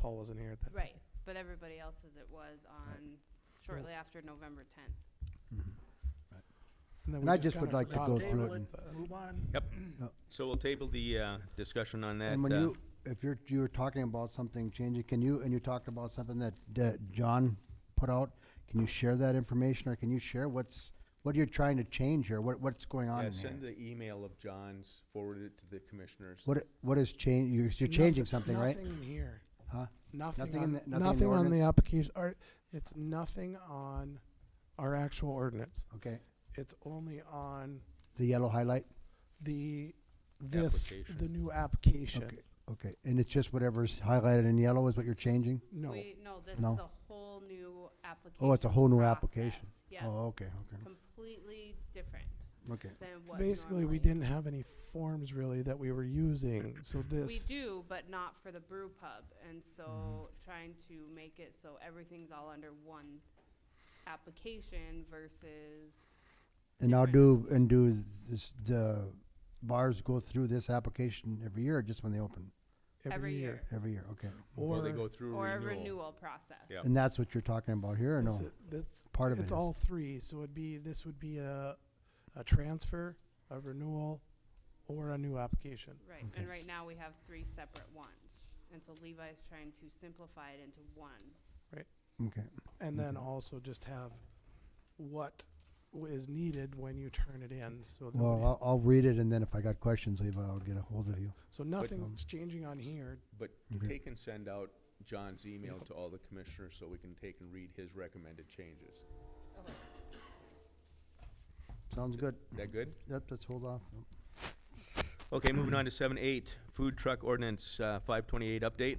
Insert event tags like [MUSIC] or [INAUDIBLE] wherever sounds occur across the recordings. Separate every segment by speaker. Speaker 1: Paul wasn't here at that.
Speaker 2: Right, but everybody else's it was on shortly after November tenth.
Speaker 1: then
Speaker 3: And
Speaker 1: we
Speaker 3: I just would
Speaker 1: kinda
Speaker 3: like to
Speaker 1: forgot
Speaker 3: go
Speaker 1: about
Speaker 3: through
Speaker 4: it
Speaker 1: that.
Speaker 4: Move on.
Speaker 5: Yep. So we'll table the uh, discussion on that.
Speaker 3: And when
Speaker 5: uh,
Speaker 3: you, if you're, you were talking about something changing, can you, and you talked about something that, that John put out, can you share that information, or can you share what's, what you're trying to change here, what, what's going on
Speaker 5: yeah,
Speaker 3: in
Speaker 5: Send
Speaker 3: here?
Speaker 5: the email of John's, forward it to the commissioners.
Speaker 3: What, i- what is change, you're, you're changing
Speaker 1: Nothing-
Speaker 3: something, right?
Speaker 1: Nothing in here.
Speaker 3: Huh?
Speaker 1: Nothing
Speaker 3: Nothing in
Speaker 1: on,
Speaker 3: the- nothing in the
Speaker 1: nothing on the
Speaker 3: ordinance?
Speaker 1: application, or, it's nothing on our actual ordinance.
Speaker 3: Okay,
Speaker 1: It's only on
Speaker 3: the yellow highlight,
Speaker 1: the, this,
Speaker 5: Application.
Speaker 1: the new application.
Speaker 3: Okay. okay, and it's just whatever's highlighted in yellow is what you're changing?
Speaker 1: No,
Speaker 2: We, no, this is
Speaker 3: No.
Speaker 2: a whole new application.
Speaker 3: Oh, it's a whole new
Speaker 2: process.
Speaker 3: application?
Speaker 2: Yeah,
Speaker 3: Oh, okay, okay,
Speaker 2: completely different
Speaker 3: okay.
Speaker 2: than what normally.
Speaker 1: basically, we didn't have any forms really that we were using, so this.
Speaker 2: We do, but not for the brew pub, and so
Speaker 3: Mm-hmm.
Speaker 2: trying to make it so everything's all under one application versus,
Speaker 3: And now do,
Speaker 2: Different.
Speaker 3: and do this, the bars go through this application every year, or just when they open?
Speaker 2: Every year.
Speaker 3: Every year, okay.
Speaker 5: Or they
Speaker 1: Or-
Speaker 5: go through
Speaker 2: or a
Speaker 5: renewal.
Speaker 2: renewal process.
Speaker 5: Yeah.
Speaker 3: And that's what you're talking about here, or
Speaker 1: This
Speaker 3: no?
Speaker 1: i- That's,
Speaker 3: Part of it
Speaker 1: it's
Speaker 3: is.
Speaker 1: all three, so it'd be, this would be a, a transfer, a renewal, or a new application.
Speaker 2: Right, and right now we have three separate ones, and so Levi's trying to simplify it into one.
Speaker 3: Okay,
Speaker 1: And then
Speaker 3: Mhm.
Speaker 1: also just have what w- is needed when you turn it in, so
Speaker 3: well,
Speaker 1: that,
Speaker 3: I'll, I'll read it, and then if I got questions, Levi, I'll get a hold of you.
Speaker 1: so
Speaker 3: um,
Speaker 1: nothing's changing on here.
Speaker 5: But
Speaker 3: Okay.
Speaker 5: take and send out John's email to all the commissioners so we can take and read his recommended changes.
Speaker 3: Sounds good.
Speaker 5: That good?
Speaker 3: Yep, let's hold off.
Speaker 5: Okay, moving on to seven eight, food truck ordinance, uh, five twenty-eight update.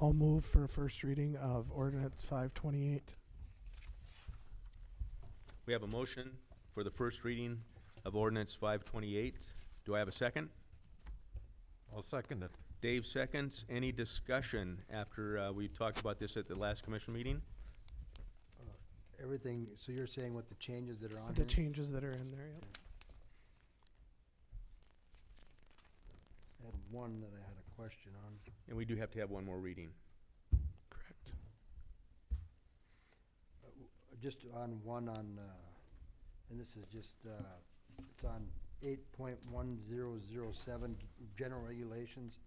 Speaker 1: I'll move for a first reading of ordinance five twenty-eight.
Speaker 5: We have a motion for the first reading of ordinance five twenty-eight. Do I have a second?
Speaker 4: I'll second it.
Speaker 5: Dave seconds. Any discussion after, uh, we talked about this at the last commission meeting?
Speaker 3: Everything, so you're saying what the changes that are on
Speaker 1: The
Speaker 3: here?
Speaker 1: changes that are in there, yep.
Speaker 3: I had one that I had a question on.
Speaker 5: And we do have to have one more reading.
Speaker 1: Correct.
Speaker 3: uh, Just on one on, uh, and this is just, uh, it's on eight point one zero zero seven, general regulations.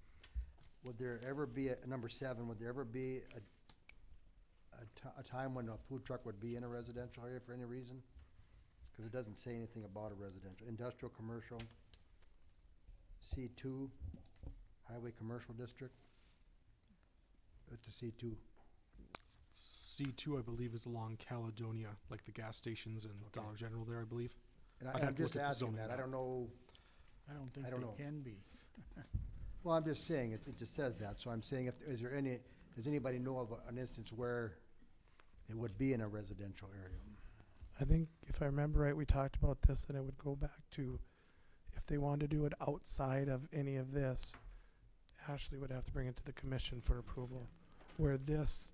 Speaker 3: Would there ever be, a number seven, would there ever be a, a ti- a time when a food truck would be in a residential area for any reason? Cause it doesn't say anything about a residential, industrial, commercial, C two, highway commercial district. It's a C two.
Speaker 6: C two, I believe, is along Caledonia, like the gas stations and
Speaker 3: Okay.
Speaker 6: Dollar General there, I believe.
Speaker 3: And
Speaker 6: I'd
Speaker 3: I,
Speaker 6: have
Speaker 3: I'm
Speaker 6: to look
Speaker 3: just
Speaker 6: at the
Speaker 3: asking
Speaker 6: zoning
Speaker 3: that, I
Speaker 6: map.
Speaker 3: don't know.
Speaker 4: I don't think
Speaker 3: I don't know.
Speaker 4: they can be.
Speaker 3: [LAUGHS] Well, I'm just saying, it, it just says that, so I'm saying if, is there any, does anybody know of an instance where it would be in a residential area?
Speaker 1: I think if I remember right, we talked about this, and it would go back to if they wanted to do it outside of any of this, Ashley would have to bring it to the commission for approval. Where this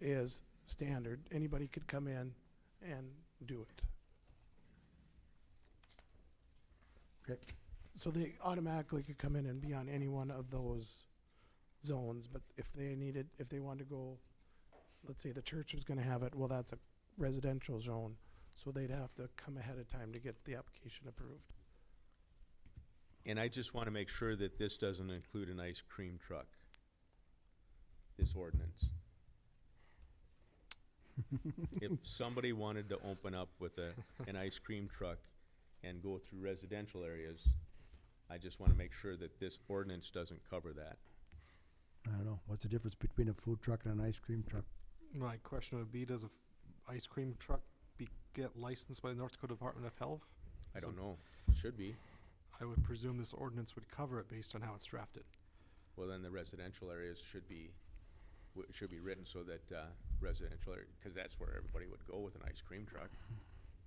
Speaker 1: is standard, anybody could come in and do it.
Speaker 3: Okay.
Speaker 1: So they automatically could come in and be on any one of those zones, but if they needed, if they wanted to go, let's say the church was gonna have it, well, that's a residential zone, so they'd have to come ahead of time to get the application approved.
Speaker 5: And I just want to make sure that this doesn't include an ice cream truck, this ordinance. If somebody wanted to open up with a, an ice cream truck and go through residential areas, I just want to make sure that this ordinance doesn't cover that.
Speaker 3: I don't know, what's the difference between a food truck and an ice cream truck?
Speaker 6: My question would be, does a f- ice cream truck be, get licensed by the North Dakota Department of Health?
Speaker 5: I
Speaker 6: So
Speaker 5: don't know, should be.
Speaker 6: I would presume this ordinance would cover it based on how it's drafted.
Speaker 5: Well, then the residential areas should be, w- should be written so that, uh, residential area, because that's where everybody would go with an ice cream truck.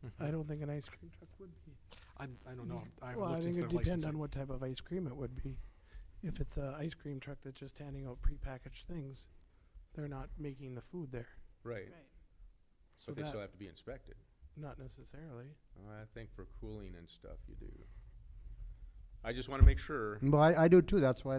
Speaker 6: Mm-hmm.
Speaker 1: I don't think an ice cream truck would be.
Speaker 6: I, I don't know. I haven't
Speaker 1: Well, I
Speaker 6: looked
Speaker 1: think
Speaker 6: into
Speaker 1: it'd
Speaker 6: their
Speaker 1: depend on
Speaker 6: licensing.
Speaker 1: what type of ice cream it would be. If it's a ice cream truck that's just handing out prepackaged things, they're not making the food there,
Speaker 5: Right.
Speaker 1: so
Speaker 5: But they still
Speaker 1: that,
Speaker 5: have to be inspected.
Speaker 1: not necessarily.
Speaker 5: Well, I think for cooling and stuff, you do. I just wanna make sure
Speaker 3: Well, I, I do too, that's why